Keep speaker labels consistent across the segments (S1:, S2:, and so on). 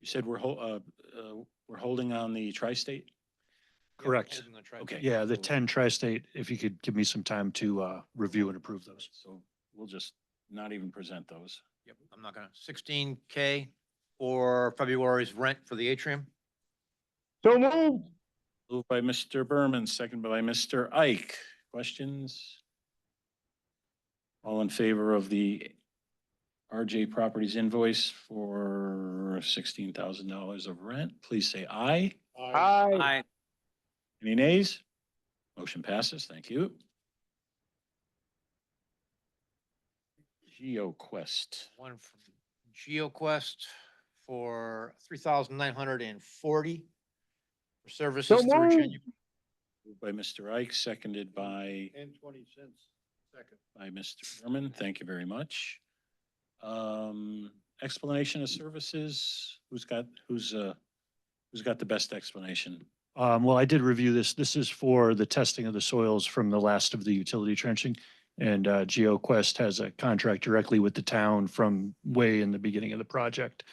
S1: You said we're hol- uh, uh, we're holding on the tri-state?
S2: Yeah,
S3: Correct.
S2: holding the tri-
S1: Okay.
S3: Yeah, the
S2: so-
S3: ten tri-state, if you could give me some time to uh, review and approve those.
S1: So we'll just not even present those.
S2: Yep, I'm not gonna, sixteen K for February's rent for the atrium.
S4: So moved.
S1: Moved by Mr. Berman, second by Mr. Ike. Questions? All in favor of the RJ Properties invoice for sixteen thousand dollars of rent, please say aye.
S4: Aye.
S1: Any nays? Motion passes. Thank you. GeoQuest.
S2: One from GeoQuest for three thousand nine hundred and forty for services through
S4: moved.
S2: January.
S1: Moved by Mr. Ike, seconded by,
S5: And twenty cents, second.
S1: by Mr. Berman. Thank you very much. Um, explanation of services, who's got, who's, uh, who's got the best explanation?
S3: Um, Well, I did review this. This is for the testing of the soils from the last of the utility trenching. And uh, GeoQuest has a contract directly with the town from way in the beginning of the project.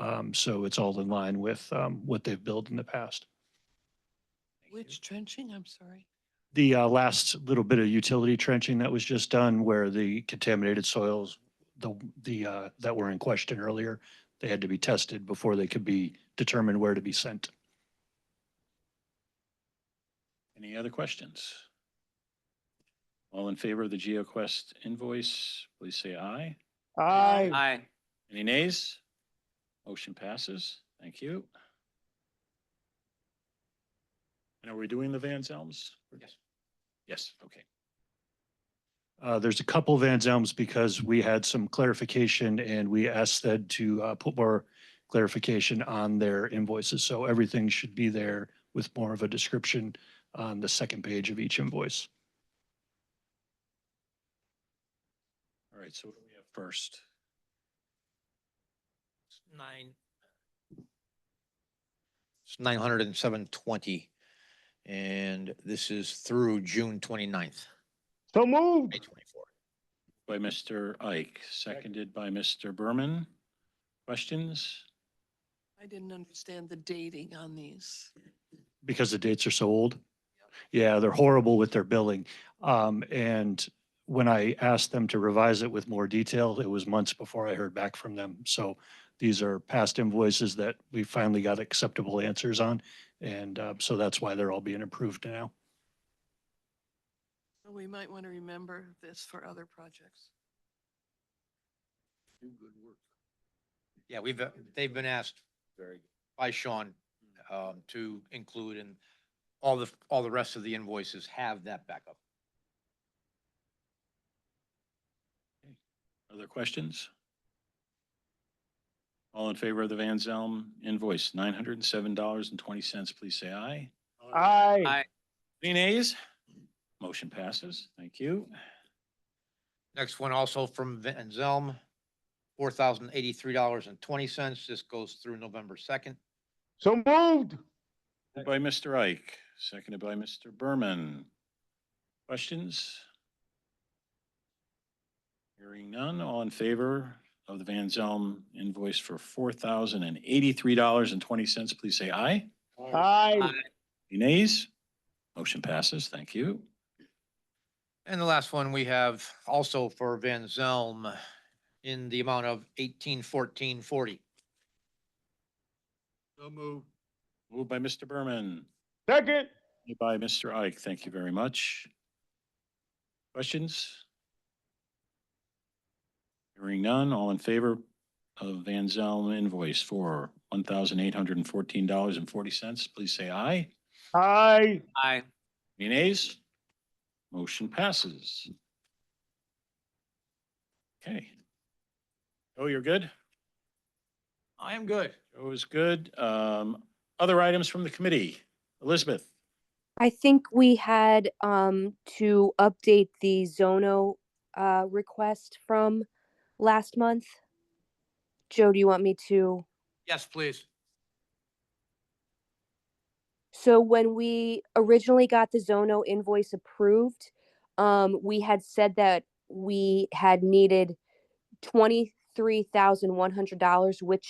S3: Um, So it's all in line with um, what they've built in the past.
S6: Which trenching, I'm sorry?
S3: The uh, last little bit of utility trenching that was just done where the contaminated soils, the, the, uh, that were in question earlier, they had to be tested before they could be determined where to be sent.
S1: Any other questions? All in favor of the GeoQuest invoice, please say aye.
S4: Aye.
S6: Aye.
S1: Any nays? Motion passes. Thank you. And are we doing the Van Zelms?
S2: Yes.
S1: Yes, okay.
S3: Uh, there's a couple Van Zelms because we had some clarification and we asked them to, uh, put more clarification on their invoices. So everything should be there with more of a description on the second page of each invoice.
S1: All right, so what do we have first?
S2: Nine. It's nine hundred and seven twenty, and this is through June 29th,
S4: So moved.
S2: May twenty-four.
S1: By Mr. Ike, seconded by Mr. Berman. Questions?
S6: I didn't understand the dating on these.
S3: because the dates are so old. Yeah, they're horrible with their billing. Um, and when I asked them to revise it with more detail, it was months before I heard back from them. So these are past invoices that we finally got acceptable answers on. And, uh, so that's why they're all being approved now.
S6: So We might want to remember this for other projects.
S2: Yeah, we've, uh, they've been asked
S1: Very good.
S2: by Sean um, to include and all the, all the rest of the invoices have that backup.
S1: Other questions? All in favor of the Van Zelm invoice, nine hundred and seven dollars and twenty cents, please say aye.
S4: Aye.
S1: Any nays? Motion passes. Thank you.
S2: Next one also from Van Zelm, four thousand eighty-three dollars and twenty cents. This goes through November second.
S4: So moved.
S1: Moved By Mr. Ike, seconded by Mr. Berman. Questions? Hearing none, all in favor of the Van Zelm invoice for four thousand and eighty-three dollars and twenty cents, please say aye.
S4: Aye.
S1: Any nays? Motion passes, thank you.
S2: And the last one we have also for Van Zelm in the amount of eighteen fourteen forty.
S5: So moved.
S1: Moved by Mr. Berman,
S4: Second.
S1: seconded by Mr. Ike, thank you very much. Questions? Hearing none, all in favor of Van Zelm invoice for one thousand eight hundred and fourteen dollars and forty cents, please say aye.
S4: Aye.
S6: Aye.
S1: Any nays? Motion passes. Okay. Oh, you're good?
S2: I am good.
S1: It was good. Um, other items from the committee? Elizabeth?
S7: I think we had um to update the Zono uh request from last month. Joe, do you want me to?
S2: Yes, please.
S7: So when we originally got the Zono invoice approved, um we had said that we had needed twenty-three thousand one hundred dollars, which